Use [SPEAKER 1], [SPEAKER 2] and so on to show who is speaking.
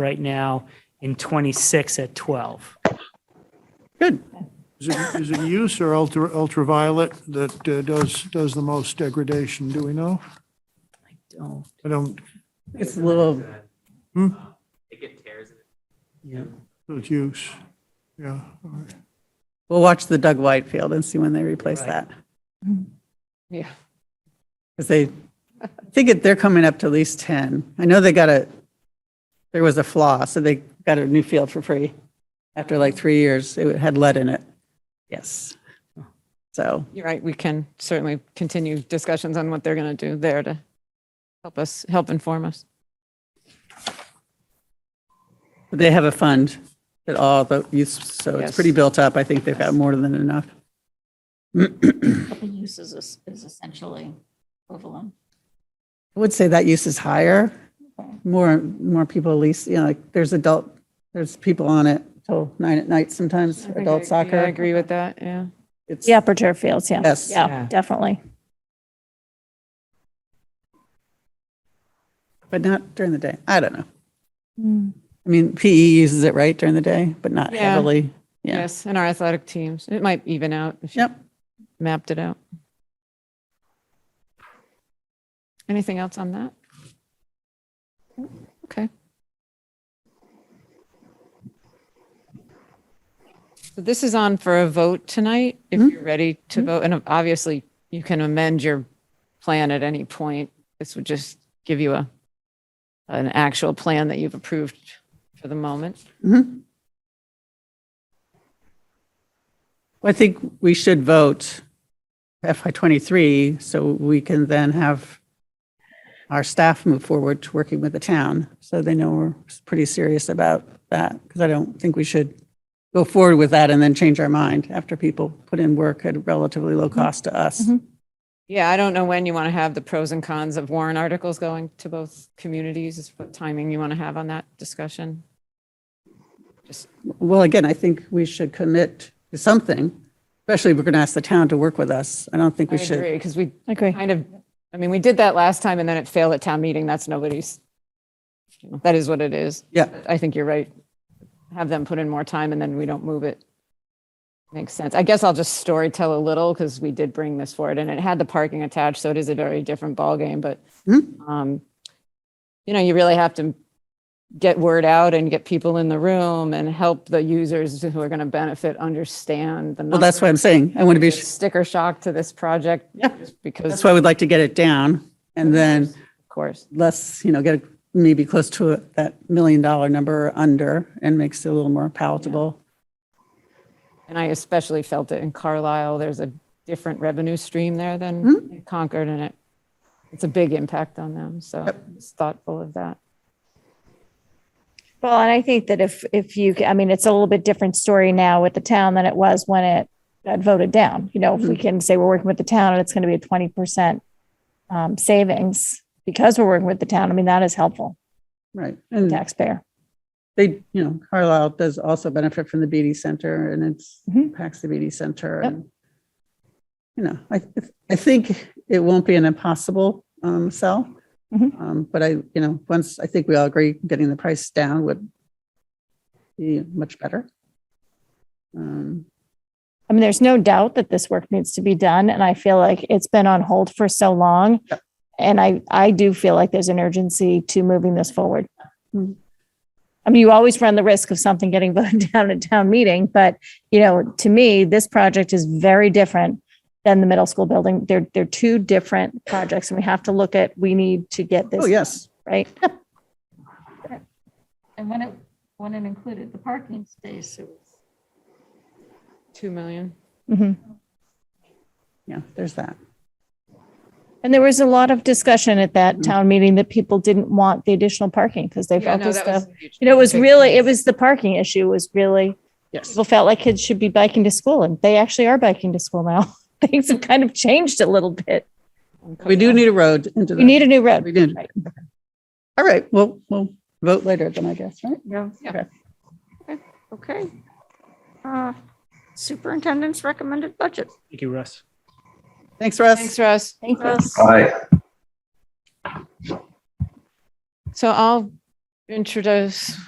[SPEAKER 1] right now and 26 at 12.
[SPEAKER 2] Good. Is it, is it use or ultra, ultraviolet that uh, does, does the most degradation? Do we know?
[SPEAKER 1] Oh,
[SPEAKER 2] I don't,
[SPEAKER 1] It's a little,
[SPEAKER 2] Hmm?
[SPEAKER 3] They get tears in it.
[SPEAKER 1] yeah.
[SPEAKER 2] it's use. Yeah. all right.
[SPEAKER 4] We'll watch the Doug Whitefield and see when they replace that.
[SPEAKER 5] Yeah.
[SPEAKER 4] Because they, I think it- they're coming up to at least 10. I know they got a, there was a flaw, so they got a new field for free. After like three years, it had lead in it. Yes. So,
[SPEAKER 5] You're right, we can certainly continue discussions on what they're going to do there to help us, help inform us.
[SPEAKER 4] they have a fund that all the youth, so it's
[SPEAKER 5] Yes.
[SPEAKER 4] pretty built up. I think they've got more than enough.
[SPEAKER 6] The use is, es- is essentially equivalent.
[SPEAKER 4] I would say that use is higher. More, more people at least, you know, like there's adult, there's people on it till nine at night sometimes, adult soccer.
[SPEAKER 5] I agree with that, yeah.
[SPEAKER 4] It's-
[SPEAKER 7] The upper turf fields, yeah.
[SPEAKER 4] Yes.
[SPEAKER 7] Yeah,
[SPEAKER 5] Yeah.
[SPEAKER 7] definitely.
[SPEAKER 4] But not during the day. I don't know.
[SPEAKER 5] Mm,
[SPEAKER 4] I mean, PE uses it right during the day, but not
[SPEAKER 5] Yeah.
[SPEAKER 4] heavily. Yeah.
[SPEAKER 5] Yes, and our athletic teams, it might even out if you
[SPEAKER 4] Yep.
[SPEAKER 5] mapped it out. Anything else on that? Okay. So this is on for a vote tonight, if
[SPEAKER 4] Mm-hmm.
[SPEAKER 5] you're ready to vote, and obviously you can amend your plan at any point. This would just give you a, an actual plan that you've approved for the moment.
[SPEAKER 4] I think we should vote FY '23 so we can then have our staff move forward to working with the town. So they know we're pretty serious about that because I don't think we should go forward with that and then change our mind after people put in work at relatively low
[SPEAKER 5] Mm-hmm.
[SPEAKER 4] cost to us.
[SPEAKER 5] Yeah, I don't know when you want to have the pros and cons of warrant articles going to both communities, is what timing you want to have on that discussion.
[SPEAKER 4] Well, again, I think we should commit to something, especially if we're going to ask the town to work with us. I don't think
[SPEAKER 5] I
[SPEAKER 4] we should.
[SPEAKER 5] agree, because we
[SPEAKER 7] Agree.
[SPEAKER 5] kind of, I mean, we did that last time and then it failed at town meeting. That's nobody's, you know, that is what it is.
[SPEAKER 4] Yeah.
[SPEAKER 5] I think you're right. Have them put in more time and then we don't move it. Makes sense. I guess I'll just story tell a little because we did bring this forward and it had the parking attached, so it is a very different ballgame, but
[SPEAKER 4] Hmm?
[SPEAKER 5] um, you know, you really have to get word out and get people in the room and help the users who are going to benefit understand the
[SPEAKER 4] Well, that's what I'm saying. I want to be,
[SPEAKER 5] numbers, sticker shock to this project.
[SPEAKER 4] Yeah.
[SPEAKER 5] just Because,
[SPEAKER 4] that's why we'd like to get it down and then
[SPEAKER 5] of course.
[SPEAKER 4] less, you know, get maybe close to that million dollar number or under and makes it a little more palatable.
[SPEAKER 5] And I especially felt it in Carlisle. There's a different revenue stream there than
[SPEAKER 7] Hmm?
[SPEAKER 5] in Concord, and it it's a big impact on them. So it's thoughtful of that.
[SPEAKER 7] Well, and I think that if, if you, I mean, it's a little bit different story now with the town than it was when it got voted down. You know, if we can say we're working with the town and it's going to be a twenty percent um, savings because we're working with the town, I mean, that is helpful
[SPEAKER 4] Right.
[SPEAKER 7] to the
[SPEAKER 4] And
[SPEAKER 7] taxpayer.
[SPEAKER 4] they, you know, Carlisle does also benefit from the BD Center and it's
[SPEAKER 7] Mhm.
[SPEAKER 4] impacts the BD Center.
[SPEAKER 7] Yep.
[SPEAKER 4] and You know, I, I think it won't be an impossible um, sell.
[SPEAKER 7] Mhm.
[SPEAKER 4] Um, But I, you know, once, I think we all agree getting the price down would be much better. Um,
[SPEAKER 7] I mean, there's no doubt that this work needs to be done, and I feel like it's been on hold for so long. And I, I do feel like there's an urgency to moving this forward.
[SPEAKER 4] Hmm.
[SPEAKER 7] I mean, you always run the risk of something getting voted down at town meeting, but you know, to me, this project is very different than the middle school building. They're, they're two different projects, and we have to look at, we need to get
[SPEAKER 4] Oh,
[SPEAKER 7] this,
[SPEAKER 4] yes.
[SPEAKER 7] right?
[SPEAKER 6] And when it, when it included the parking space, it was
[SPEAKER 5] Two million.
[SPEAKER 7] Mhm.
[SPEAKER 4] Yeah, there's that.
[SPEAKER 7] And there was a lot of discussion at
[SPEAKER 4] Hmm.
[SPEAKER 7] that town meeting that people didn't want the additional parking because they felt as though You know, it was really, it was the parking issue was really,
[SPEAKER 4] Yes.
[SPEAKER 7] people felt like kids should be biking to school and they actually are biking to school now. Things have kind of changed a little bit.
[SPEAKER 4] We do need a road into
[SPEAKER 7] We
[SPEAKER 4] the,
[SPEAKER 7] need a new
[SPEAKER 4] we
[SPEAKER 7] road.
[SPEAKER 4] did.
[SPEAKER 7] Right.
[SPEAKER 4] All right, well, we'll vote later then, I guess, right?
[SPEAKER 6] okay. Uh, Superintendent's recommended budget.
[SPEAKER 1] Thank you, Russ.
[SPEAKER 4] Thanks, Russ.
[SPEAKER 5] Thanks, Russ.
[SPEAKER 7] Thank you.
[SPEAKER 6] Russ,
[SPEAKER 5] So I'll introduce